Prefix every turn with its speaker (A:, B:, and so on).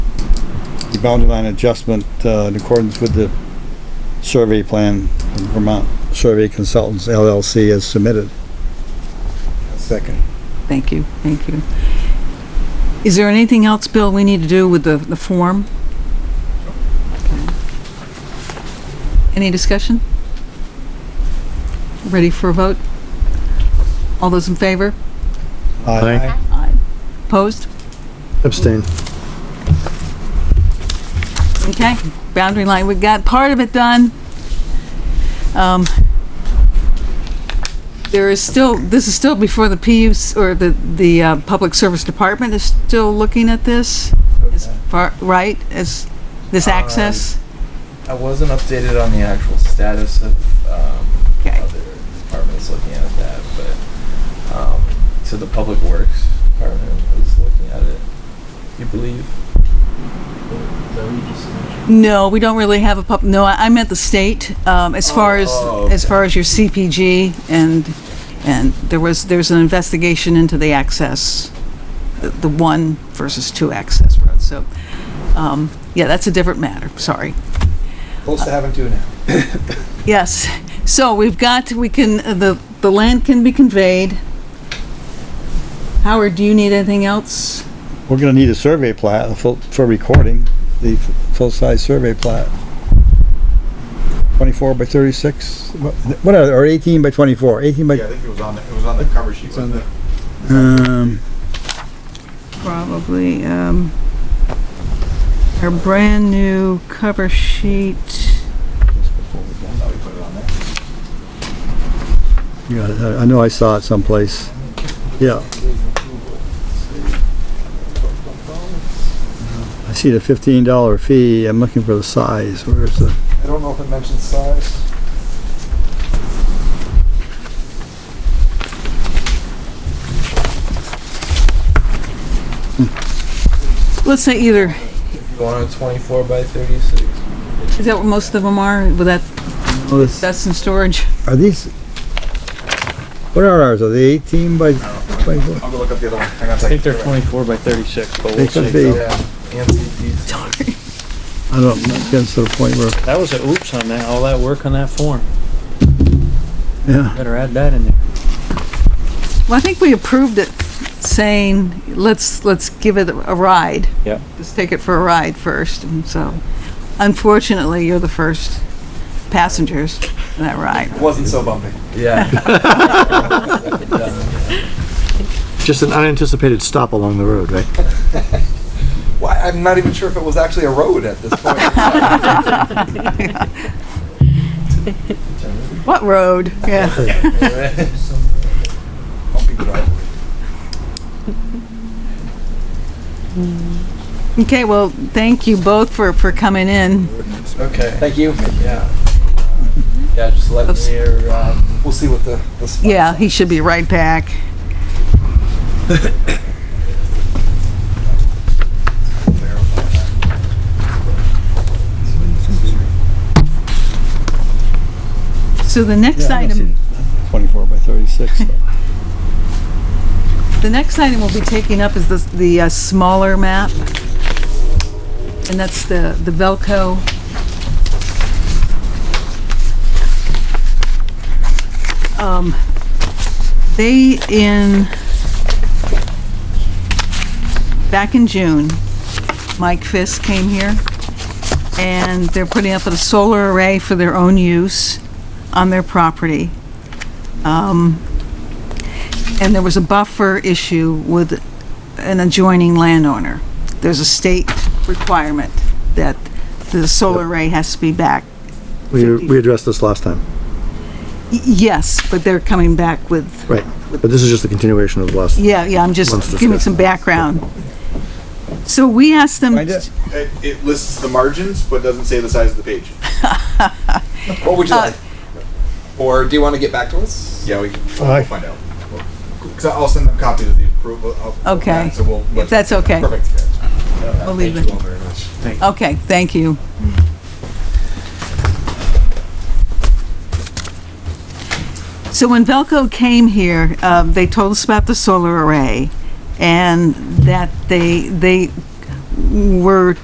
A: boundary line adjustment, uh, in accordance with the survey plan from Vermont Survey Consultants LLC as submitted.
B: Second.
C: Thank you, thank you. Is there anything else, Bill, we need to do with the, the form? Okay. Any discussion? Ready for a vote? All those in favor?
A: Aye.
C: Aye. Opposed?
D: Abstain.
C: Okay, boundary line, we got part of it done. Um, There is still, this is still before the PUC, or the, the uh, Public Service Department is still looking at this, as far, right, as this
B: Um,
C: access?
B: I wasn't updated on the actual status of, um,
C: Okay.
B: other departments looking at that, but, um, so the Public Works Department is looking at it, you believe?
C: No, we don't really have a pub, no, I I meant the state, um, as far as,
B: Oh,
C: as far as your CPG, and, and there was, there's an investigation into the access, the- the one versus two access roads, so, um, yeah, that's a different matter, sorry.
B: Close to having two now.
C: Yes, so we've got, we can, uh, the, the land can be conveyed. Howard, do you need anything else?
A: We're gonna need a survey plat, a full, for recording, the f- full-size survey plat. Twenty-four by thirty-six, what, what are, or eighteen by twenty-four, eighteen by,
E: Yeah, I think it was on, the it was on the cover sheet. wasn't it?
A: um,
C: Probably, um, our brand-new cover sheet.
E: I thought we put it on there.
A: yeah, I I know I saw it someplace. Yeah, I see the fifteen dollar fee, I'm looking for the size, where's the?
B: I don't know if it mentions size.
C: Let's say either,
B: If you want a twenty-four by thirty-six.
C: is that what most of them are, with that,
A: Oh, this-
C: that's in storage?
A: Are these, what are ours, are they eighteen by twenty-four?
E: I'll go look up the other one. Hang on a
D: I think
E: second.
D: they're 24 by 36, but
A: They
D: we'll
A: could
D: see.
A: be,
B: Yeah, and CPs.
C: Sorry.
A: I don't, getting to the point where,
D: That was a oops on that, all that work on that form.
A: yeah,
D: Better add that in there.
C: Well, I think we approved it saying, let's, let's give it a ride.
D: Yeah.
C: Let's take it for a ride first, and so unfortunately, you're the first passengers in that ride.
E: Wasn't so bumpy.
B: Yeah.
F: Just an unanticipated stop along the road, right?
E: Why, I'm not even sure if it was actually a road at this point.
C: What road? Yeah.
E: Bumpy driveway.
C: Okay, well, thank you both for, for coming in.
B: Okay.
E: Thank you.
B: Yeah. Yeah, just let
C: Oops.
B: me, um,
E: We'll see what the, the. spot-
C: Yeah, he should be right back. So the next
A: Yeah, I don't see
C: item,
A: twenty-four by thirty-six. so.
C: the next item we'll be taking up is the, the uh, smaller map. And that's the, the Velco. Um, They in, back in June, Mike Fisk came here and they're putting up a solar array for their own use on their property. and there was a buffer issue with an adjoining landowner. There's a state requirement that the solar array has to be back.
F: We, we addressed this last time.
C: Y- Yes, but they're coming back with,
F: Right. But this is just the continuation of the last.
C: yeah, yeah, I'm just
F: Let's
C: giving
F: discuss
C: some
F: that.
C: background. So we asked them,
A: Find it.
E: It, it lists the margins, but doesn't say the size of the page. What would you like?
B: or do you want to get back to us?
E: Yeah, we can, we'll find out. Cause I'll send them copies of the approval. of- of
C: Okay.
E: that, So we'll.
C: if that's okay,
E: Perfect.
C: I'll leave
E: Thank you
C: it.
E: all very much.
C: Okay, thank you. So when Velco came here, uh, they told us about the solar array and that they, they were